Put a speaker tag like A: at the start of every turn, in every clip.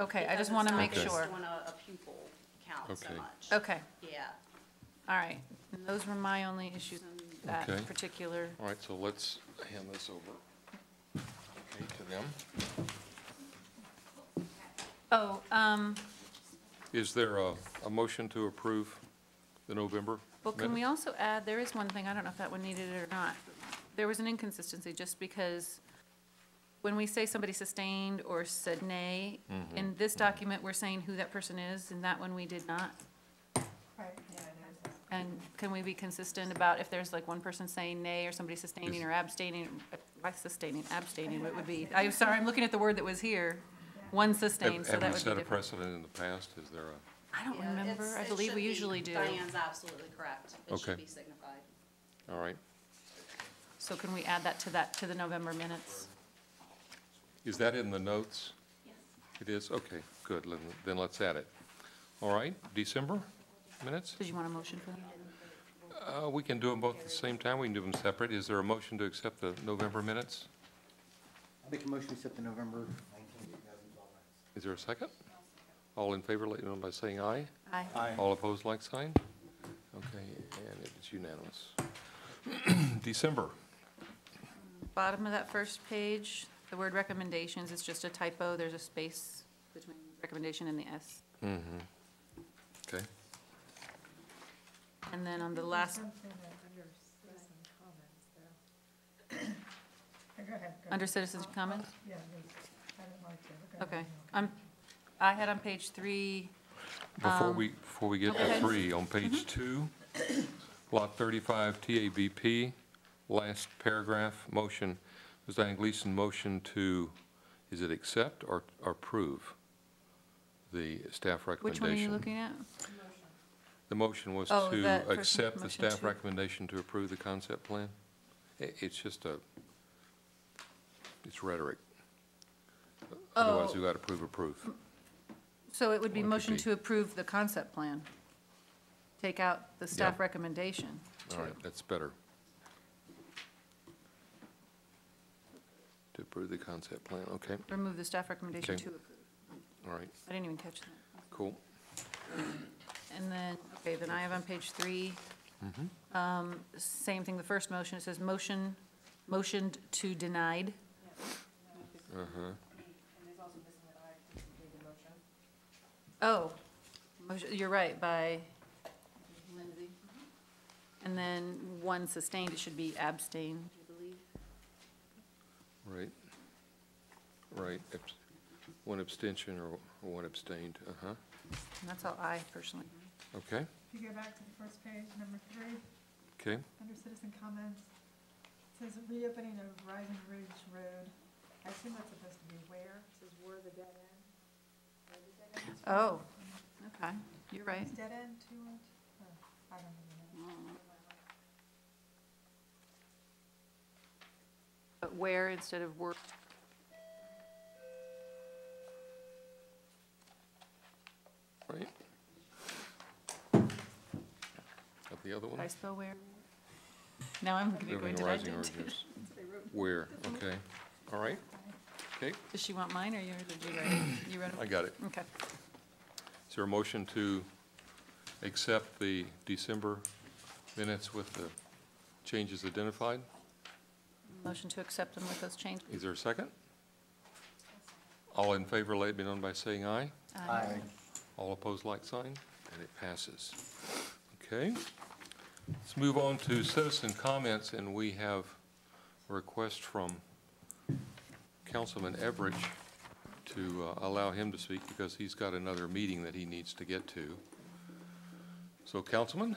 A: Okay, I
B: because
A: just
B: it's
A: want to
B: not
A: make
B: based
A: sure.
B: on a a pupil count so
C: Okay.
B: much.
A: Okay,
B: Yeah.
A: all right. Those were my only issues, that
C: Okay.
A: particular.
C: All right, so let's hand this over, okay, to them.
A: Oh, um,
C: Is there a, a motion to approve the November?
A: well, can we
C: minute?
A: also add, there is one thing, I don't know if that one needed it or not. There was an inconsistency, just because when we say somebody sustained or said nay,
C: Mm-hmm,
A: in this document, we're saying who that person is, and that one we did not. And can we be consistent about if there's like one person saying nay, or somebody sustaining
C: Is-
A: or abstaining, uh, why sustaining, abstaining, what would be? I'm sorry, I'm looking at the word that was here, one sustained,
C: Have-
A: so that would be
C: Have we set a
A: different.
C: precedent in the past? Is there a,
A: I don't
B: Yeah,
A: remember,
B: it's-
A: I
B: it
A: believe
B: should
A: we
B: be-
A: usually do.
B: Diane's absolutely correct. It
C: Okay.
B: should be signified.
C: all right.
A: So can we add that to that, to the November minutes?
C: Is that in the notes? It is? Okay, good, then, then let's add it. All right, December minutes?
A: Did you want a motion for that?
C: Uh, we can do them both at the same time, we can do them separate. Is there a motion to accept the November minutes?
D: I'll make a motion to accept the November nineteenth, two thousand twelve minutes.
C: Is there a second? All in favor, let you know by saying aye.
A: Aye.
C: All opposed, like sign? Okay, and it's unanimous. December,
A: Bottom of that first page, the word recommendations is just a typo, there's a space between recommendation and the S.
C: okay.
A: And then on the last,
E: Something that under citizen comments, though. Go ahead, go
A: under
E: ahead.
A: citizens' comments?
E: Yeah, I don't like it. Go ahead.
A: Okay, I'm, I had on page three,
C: Before we, before we get to
A: Um, okay. Mm-hmm.
C: three, on page two, lot thirty-five TABP, last paragraph, motion, Ms. Diane Gleason, motion to, is it accept or or approve the staff
A: which
C: recommendation?
A: one are you looking at?
C: The motion was
A: Oh, that
C: to
A: first
C: accept the
A: motion
C: staff
A: to-
C: recommendation to approve the concept plan? I- It's just a, it's rhetoric. Otherwise,
A: Oh.
C: we got to approve, approve.
A: So it would be
C: Well, it could
A: motion
C: be-
A: to approve the concept plan. Take out the staff
C: Yeah.
A: recommendation.
C: All right, that's better. To approve the concept plan, okay,
A: Remove the staff recommendation
C: Okay.
A: to approve.
C: all right,
A: I didn't even catch that.
C: cool.
A: And then, okay, then I have on page three, um, same thing, the first motion, it says motion, motioned to denied.
C: Uh-huh.
A: Oh, motion- you're right, by Lindsay. And then one sustained, it should be abstain, I believe.
C: Right, right, abs- one abstention or one abstained, uh-huh,
A: And that's all I personally.
C: okay,
E: If you go back to the first page, number three,
C: okay,
E: under citizen comments, it says reopening of Rising Ridge Road. I assume that's supposed to be where, it says where the dead end. Where the dead end is from.
A: Oh, okay, you're right.
E: Dead end, two and, oh, I don't even know.
A: But where instead of work.
C: right. Got the other
A: Did I
C: one?
A: spell where? Now I'm gonna go
C: Living
A: into
C: Rising
A: that.
C: Origins. Where, okay, all right, okay,
A: Does she want mine or yours, or did you write it? You wrote
C: I
A: it?
C: got it.
A: Okay.
C: Is there a motion to accept the December minutes with the changes identified?
A: Motion to accept them with those changes.
C: Is there a second? All in favor, let it be known by saying aye.
D: Aye.
C: All opposed, like sign, and it passes. Okay. Let's move on to citizen comments, and we have a request from Councilman Everidge to uh, allow him to speak because he's got another meeting that he needs to get to. So Councilman?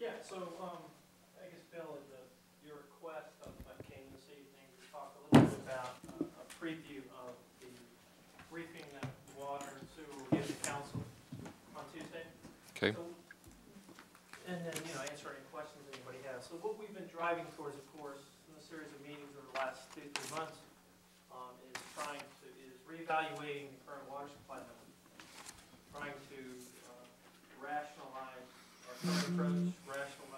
F: Yeah, so, um, I guess, Bill, at the, your request, um, I came this evening to talk a little bit about uh, a preview of the briefing that Water and Sewer will give the council on Tuesday.
C: Okay,
F: So- And then, you know, answer any questions anybody has. So what we've been driving towards, of course, in a series of meetings over the last two, three months, um, is trying to, is reevaluating the current water supply network. Trying to uh, rationalize our current approach, rationalize Um,